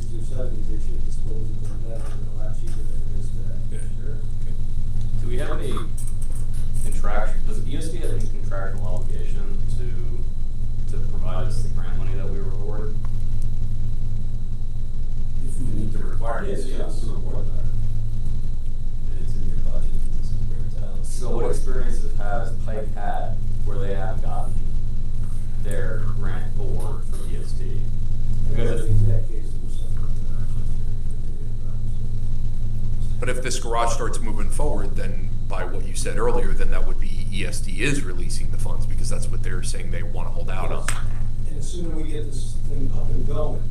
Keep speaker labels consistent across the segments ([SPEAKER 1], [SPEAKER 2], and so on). [SPEAKER 1] means they should dispose of them then, and a lot cheaper than it is today.
[SPEAKER 2] Yeah.
[SPEAKER 1] Sure.
[SPEAKER 3] Do we have any contract, does ESD have any contractual obligation to, to provide us the grant money that we were awarded?
[SPEAKER 4] If we meet the requirements, yes, we'll award that.
[SPEAKER 5] uh, It's in your budget, this is where it's at.
[SPEAKER 3] So what experiences has Pike had where they have gotten their grant award from ESD? Because
[SPEAKER 1] Because
[SPEAKER 3] if-
[SPEAKER 1] in that case, it was something that I should say.
[SPEAKER 2] But if this garage starts moving forward, then by what you said earlier, then that would be ESD is releasing the funds because that's what they're saying they want to hold out on.
[SPEAKER 1] And the sooner we get this thing up and going,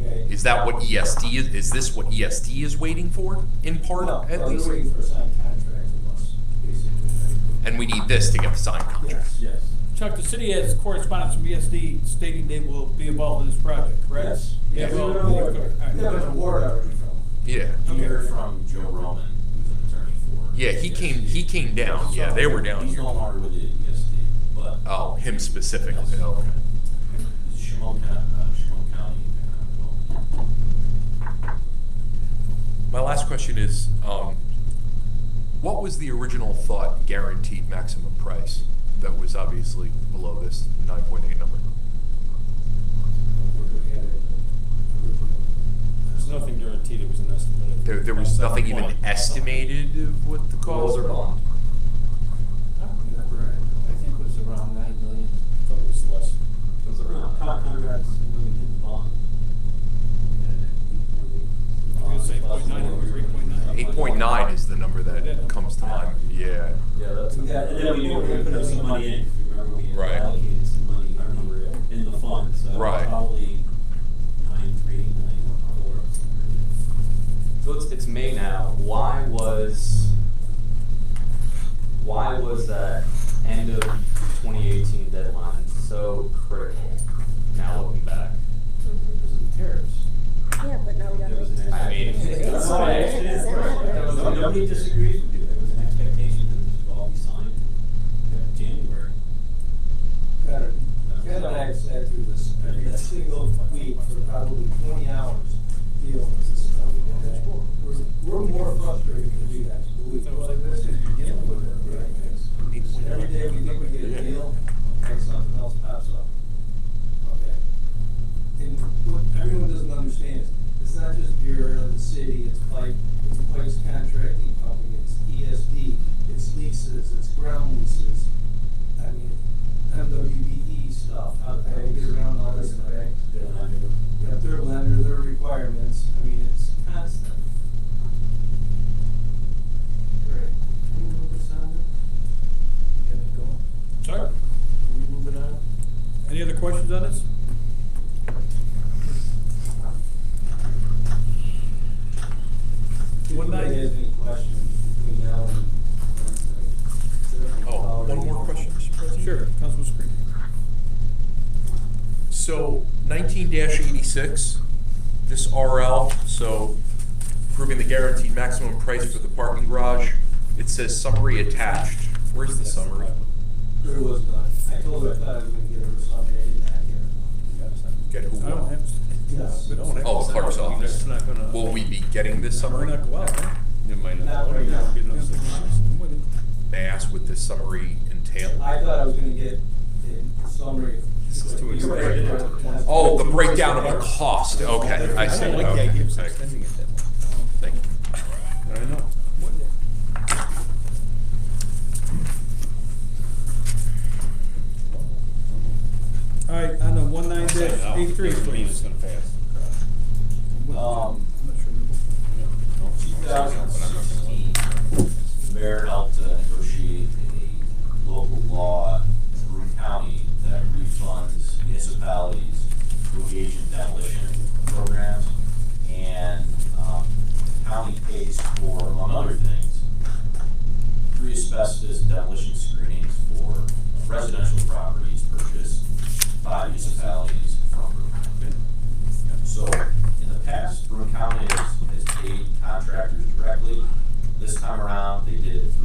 [SPEAKER 1] okay?
[SPEAKER 2] Is that what ESD is? Is this what ESD is waiting for in part
[SPEAKER 1] No,
[SPEAKER 2] at
[SPEAKER 1] no,
[SPEAKER 2] least?
[SPEAKER 1] they're waiting for a signed contract from us, basically.
[SPEAKER 2] And we need this to get the signed contract.
[SPEAKER 1] Yes.
[SPEAKER 5] Yes.
[SPEAKER 6] Chuck, the city has correspondence from ESD stating they will be involved in this project, correct?
[SPEAKER 1] Yes.
[SPEAKER 6] Yeah,
[SPEAKER 1] Yes.
[SPEAKER 6] well,
[SPEAKER 1] We have an award.
[SPEAKER 6] okay, all right.
[SPEAKER 1] We have an award already from them.
[SPEAKER 2] Yeah.
[SPEAKER 6] Okay.
[SPEAKER 5] You heard from Joe Roman, who's an attorney for.
[SPEAKER 2] Yeah, he came-
[SPEAKER 5] ESD.
[SPEAKER 2] he came down. Yeah, they were down
[SPEAKER 5] He's
[SPEAKER 2] here.
[SPEAKER 5] no longer with the ESD, but.
[SPEAKER 2] Oh, him specifically.
[SPEAKER 5] Yes.
[SPEAKER 2] Okay.
[SPEAKER 5] He's Shimon County, uh, Shimon County, uh, well,
[SPEAKER 2] My last question is, um, what was the original thought guaranteed maximum price that was obviously below this nine point eight number?
[SPEAKER 1] There's
[SPEAKER 7] There's nothing guaranteed, it was an estimate.
[SPEAKER 2] There, there was nothing even estimated of what the
[SPEAKER 3] What was
[SPEAKER 2] cost.
[SPEAKER 3] their bond?
[SPEAKER 7] I don't remember, I think it was around nine million. I thought it was less.
[SPEAKER 3] It was around-
[SPEAKER 5] Conrad's moving his bond.
[SPEAKER 6] I'm gonna say point nine, it was three point nine.
[SPEAKER 2] Eight point nine is the number that comes to mind, yeah.
[SPEAKER 3] Yeah, that's.
[SPEAKER 1] Yeah,
[SPEAKER 5] And then we we put some money in, if you remember, we
[SPEAKER 2] Right.
[SPEAKER 5] allocated some money, I remember, in the fund, so
[SPEAKER 2] Right.
[SPEAKER 5] probably nine, three, nine, four, somewhere.
[SPEAKER 3] So it's, it's May now. Why was why was that end of 2018 deadline so critical? Now looking back,
[SPEAKER 8] Yeah, but now we gotta
[SPEAKER 5] There was
[SPEAKER 8] wait
[SPEAKER 5] an
[SPEAKER 8] till.
[SPEAKER 3] I mean,
[SPEAKER 5] expectation.
[SPEAKER 3] it's
[SPEAKER 5] No, I
[SPEAKER 3] May.
[SPEAKER 5] understand.
[SPEAKER 8] It's not
[SPEAKER 5] There was-
[SPEAKER 8] very-
[SPEAKER 5] Nobody disagrees with you, there was an expectation that this would all be signed in January.
[SPEAKER 1] Better. Ken and I have sat through this every single week for probably twenty hours dealing with this stuff. okay? We're, we're more frustrated than you guys, believe me. Well, this is dealing with it, right? When every day we think we get a deal, okay, something else pops up. Okay. And what everyone doesn't understand is, it's not just Bureau of the City, it's Pike, it's Pike's Contracting Company, it's ESD, it's leases, it's ground leases. I mean, MWBE E stuff, how, how you get around all this, okay?
[SPEAKER 5] Uh,
[SPEAKER 1] You got their lender, their requirements, I mean, it's constant. Great. Can we move this on? Get it going.
[SPEAKER 6] Sir,
[SPEAKER 7] Are we moving on?
[SPEAKER 6] any other questions on this?
[SPEAKER 1] If anybody has any questions between now and Wednesday.
[SPEAKER 2] Oh, one more question, Mr. President.
[SPEAKER 6] Sure, Councilman Screen.
[SPEAKER 2] So nineteen eighty-six, this RL, so proving the guaranteed maximum price for the parking garage. It says summary attached. Where's the summary?
[SPEAKER 1] There was none. I told her I thought I was gonna get her something, I didn't have it.
[SPEAKER 2] Get who?
[SPEAKER 6] I don't have.
[SPEAKER 1] Yes.
[SPEAKER 6] we don't have-
[SPEAKER 2] Oh, clerk's office.
[SPEAKER 6] That's not gonna-
[SPEAKER 2] Will we be getting this
[SPEAKER 6] We're
[SPEAKER 2] summary?
[SPEAKER 6] not go out, huh?
[SPEAKER 7] It might
[SPEAKER 1] Not right now.
[SPEAKER 6] Get enough signatures. I'm with you.
[SPEAKER 2] May I ask what this summary entails?
[SPEAKER 1] I thought I was gonna get a summary.
[SPEAKER 7] This is too
[SPEAKER 1] You're right.
[SPEAKER 7] expensive.
[SPEAKER 2] Oh, the breakdown of the cost, okay, I see,
[SPEAKER 7] I don't like the
[SPEAKER 2] okay,
[SPEAKER 7] idea of
[SPEAKER 2] thank you.
[SPEAKER 7] extending it that much.
[SPEAKER 2] Thank you.
[SPEAKER 7] I know.
[SPEAKER 6] All right, on the one nine
[SPEAKER 7] "Oh,
[SPEAKER 6] dash eight three,
[SPEAKER 7] Doesn't mean
[SPEAKER 6] please.
[SPEAKER 7] it's gonna pass.
[SPEAKER 5] Um,
[SPEAKER 6] I'm not sure we will.
[SPEAKER 5] two thousand sixteen, the mayor helped uh, negotiate a local law through county that refunds municipalities who engage in demolition programs. And, um, county pays for, among other things, free asbestos demolition screenings for residential properties purchased by municipalities from Broome County. So, in the past, Broome County has, has paid contractors directly. This time around, they did it um, uh, um,